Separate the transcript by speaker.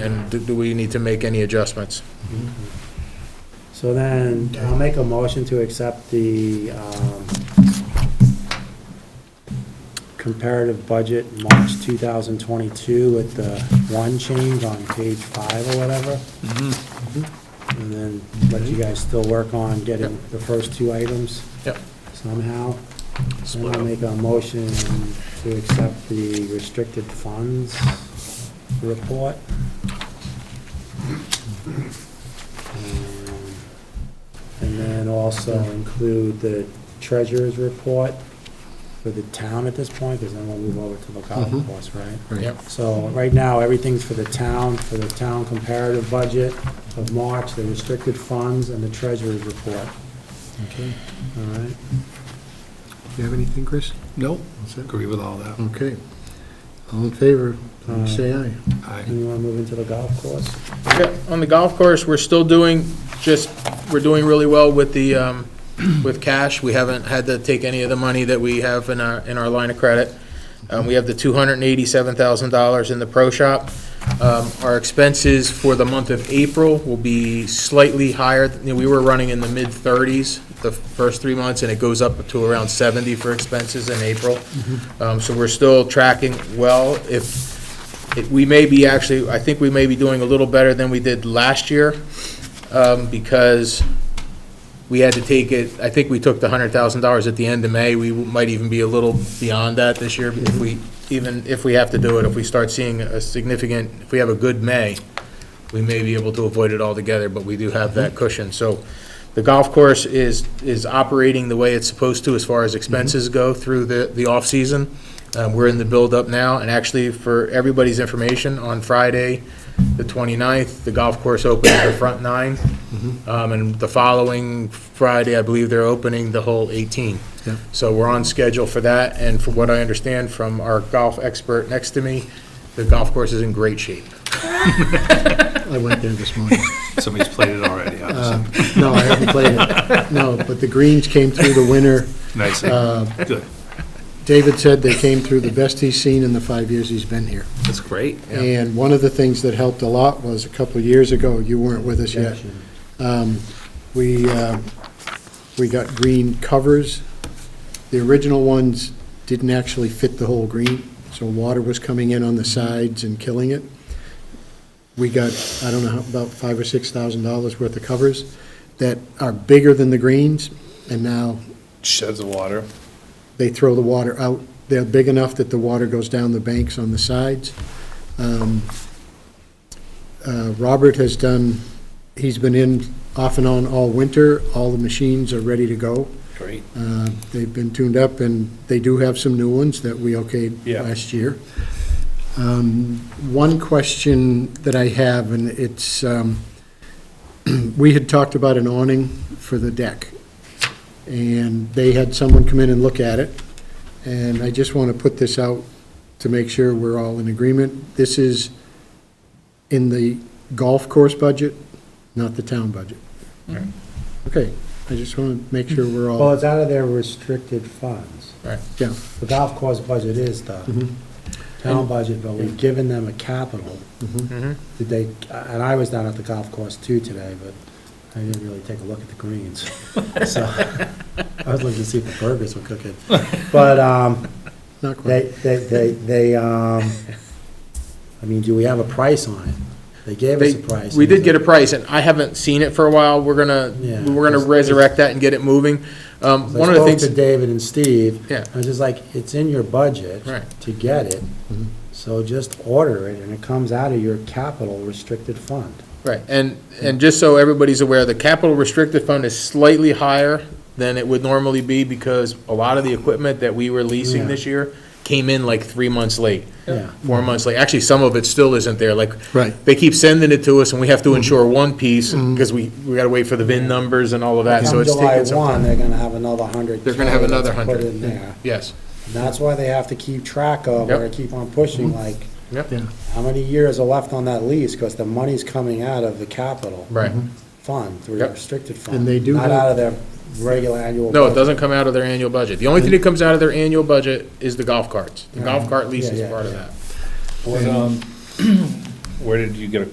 Speaker 1: And do- do we need to make any adjustments?
Speaker 2: So then, I'll make a motion to accept the um, comparative budget March 2022 with the one change on page five or whatever. And then let you guys still work on getting the first two items
Speaker 1: Yep.
Speaker 2: somehow. And
Speaker 1: Split
Speaker 2: I'll
Speaker 1: up.
Speaker 2: make a motion to accept the restricted funds report. Um, And then also include the treasurer's report for the town at this point, because then we'll move over to the golf
Speaker 3: Mhm.
Speaker 2: course, right?
Speaker 1: Yep.
Speaker 2: So right now, everything's for the town, for the town comparative budget of March, the restricted funds, and the treasurer's report,
Speaker 3: Okay.
Speaker 2: all right?
Speaker 3: You have anything, Chris?
Speaker 4: Nope,
Speaker 3: That's it?
Speaker 4: agree with all that.
Speaker 3: Okay. All in favor, please say aye.
Speaker 4: Aye.
Speaker 2: And you want to move into the golf course?
Speaker 1: Yeah, On the golf course, we're still doing, just, we're doing really well with the, um, with cash. We haven't had to take any of the money that we have in our, in our line of credit. Um, We have the $287,000 in the pro shop. Um, Our expenses for the month of April will be slightly higher. You know, We were running in the mid-30s the first three months, and it goes up to around 70 for expenses in April. Um, So we're still tracking well. If, it- we may be actually, I think we may be doing a little better than we did last year, um, because we had to take it, I think we took the hundred thousand dollars at the end of May, we might even be a little beyond that this year, if we, even if we have to do it, if we start seeing a significant, if we have a good May, we may be able to avoid it altogether, but we do have that cushion, so the golf course is, is operating the way it's supposed to as far as expenses go through the, the off-season. Um, We're in the build-up now, and actually, for everybody's information, on Friday, the 29th, the golf course opens the front nine, Um, and the following Friday, I believe they're opening the whole 18.
Speaker 3: Yep.
Speaker 1: So we're on schedule for that, and from what I understand from our golf expert next to me, the golf course is in great shape.
Speaker 3: I went there this morning.
Speaker 4: Somebody's played it already, huh?
Speaker 3: Uh, No, I haven't played it. No, but the greens came through the winter.
Speaker 4: Nice,
Speaker 3: Uh,
Speaker 4: good.
Speaker 3: David said they came through the best he's seen in the five years he's been here.
Speaker 4: That's great.
Speaker 1: Yeah.
Speaker 3: And one of the things that helped a lot was a couple of years ago, you weren't with us yet. Um, We, uh, we got green covers. The original ones didn't actually fit the whole green, so water was coming in on the sides and killing it. We got, I don't know, how- about five or six thousand dollars worth of covers that are bigger than the greens, and now
Speaker 4: Sheds of water.
Speaker 3: they throw the water out. They're big enough that the water goes down the banks on the sides. Um, uh, Robert has done, he's been in off and on all winter. All the machines are ready to go.
Speaker 4: Great.
Speaker 3: Uh, They've been tuned up, and they do have some new ones that we okayed
Speaker 4: Yeah.
Speaker 3: last year. Um, One question that I have, and it's, um, we had talked about an awning for the deck, and they had someone come in and look at it, and I just want to put this out to make sure we're all in agreement. This is in the golf course budget, not the town budget. Okay, I just want to make sure we're all.
Speaker 2: Well, it's out of their restricted funds.
Speaker 3: Yeah,
Speaker 2: The golf course budget is
Speaker 1: Mm-hmm.
Speaker 2: the
Speaker 3: Mhm.
Speaker 2: town budget, but we've given them a capital.
Speaker 1: Mhm.
Speaker 2: Did they, and I was down at the golf course too today, but I didn't really take a look at the greens. So, I was looking to see if the burgers were cooking. But, um,
Speaker 3: not quite.
Speaker 2: They, they, they, they, um, I mean, do we have a price on it? They gave us a price.
Speaker 1: They- We did get a price, and I haven't seen it for a while. We're gonna,
Speaker 2: Yeah.
Speaker 1: we're gonna resurrect that and get it moving. Um,
Speaker 2: So
Speaker 1: One of the
Speaker 2: I spoke to
Speaker 1: things,
Speaker 2: David and Steve.
Speaker 1: Yeah.
Speaker 2: I was just like, it's in your budget.
Speaker 1: Right. Mm-hmm.
Speaker 2: To get it, so just order it, and it comes out of your capital restricted fund.
Speaker 1: right, and, and just so everybody's aware, the capital restricted fund is slightly higher than it would normally be because a lot of the equipment that we were leasing
Speaker 2: Yeah.
Speaker 1: this year came in like three months late,
Speaker 2: Yeah.
Speaker 1: four months late. Actually, some of it still isn't there, like,
Speaker 3: Right.
Speaker 1: they keep sending it to us, and we
Speaker 2: Mm-hmm.
Speaker 1: have to insure one piece, because we, we gotta wait for the VIN numbers and all of that, so
Speaker 2: Come
Speaker 1: it's
Speaker 2: Mm-hmm. July
Speaker 1: taking some
Speaker 2: one,
Speaker 1: time.
Speaker 2: they're gonna have another hundred.
Speaker 1: They're gonna have
Speaker 2: K
Speaker 1: another
Speaker 2: that's
Speaker 1: hundred.
Speaker 2: Put in there.
Speaker 1: Yes,
Speaker 2: And that's why they have to keep track of, or
Speaker 1: Yep. Mm-hmm.
Speaker 2: keep on pushing, like,
Speaker 1: yep,
Speaker 3: Yeah,
Speaker 2: how many years are left on that lease? Because the money's coming out of the capital.
Speaker 1: right.
Speaker 2: fund, through
Speaker 1: Yep.
Speaker 2: restricted fund.
Speaker 3: And they do
Speaker 2: Not
Speaker 3: have-
Speaker 2: out of their regular annual.
Speaker 1: No, it
Speaker 2: budget.
Speaker 1: doesn't come out of their annual budget. The only thing that comes out of their annual budget is the golf carts. The golf cart lease
Speaker 2: Yeah,
Speaker 1: is
Speaker 2: yeah,
Speaker 1: part of
Speaker 2: yeah.
Speaker 1: that.
Speaker 4: What, um, Where did you get a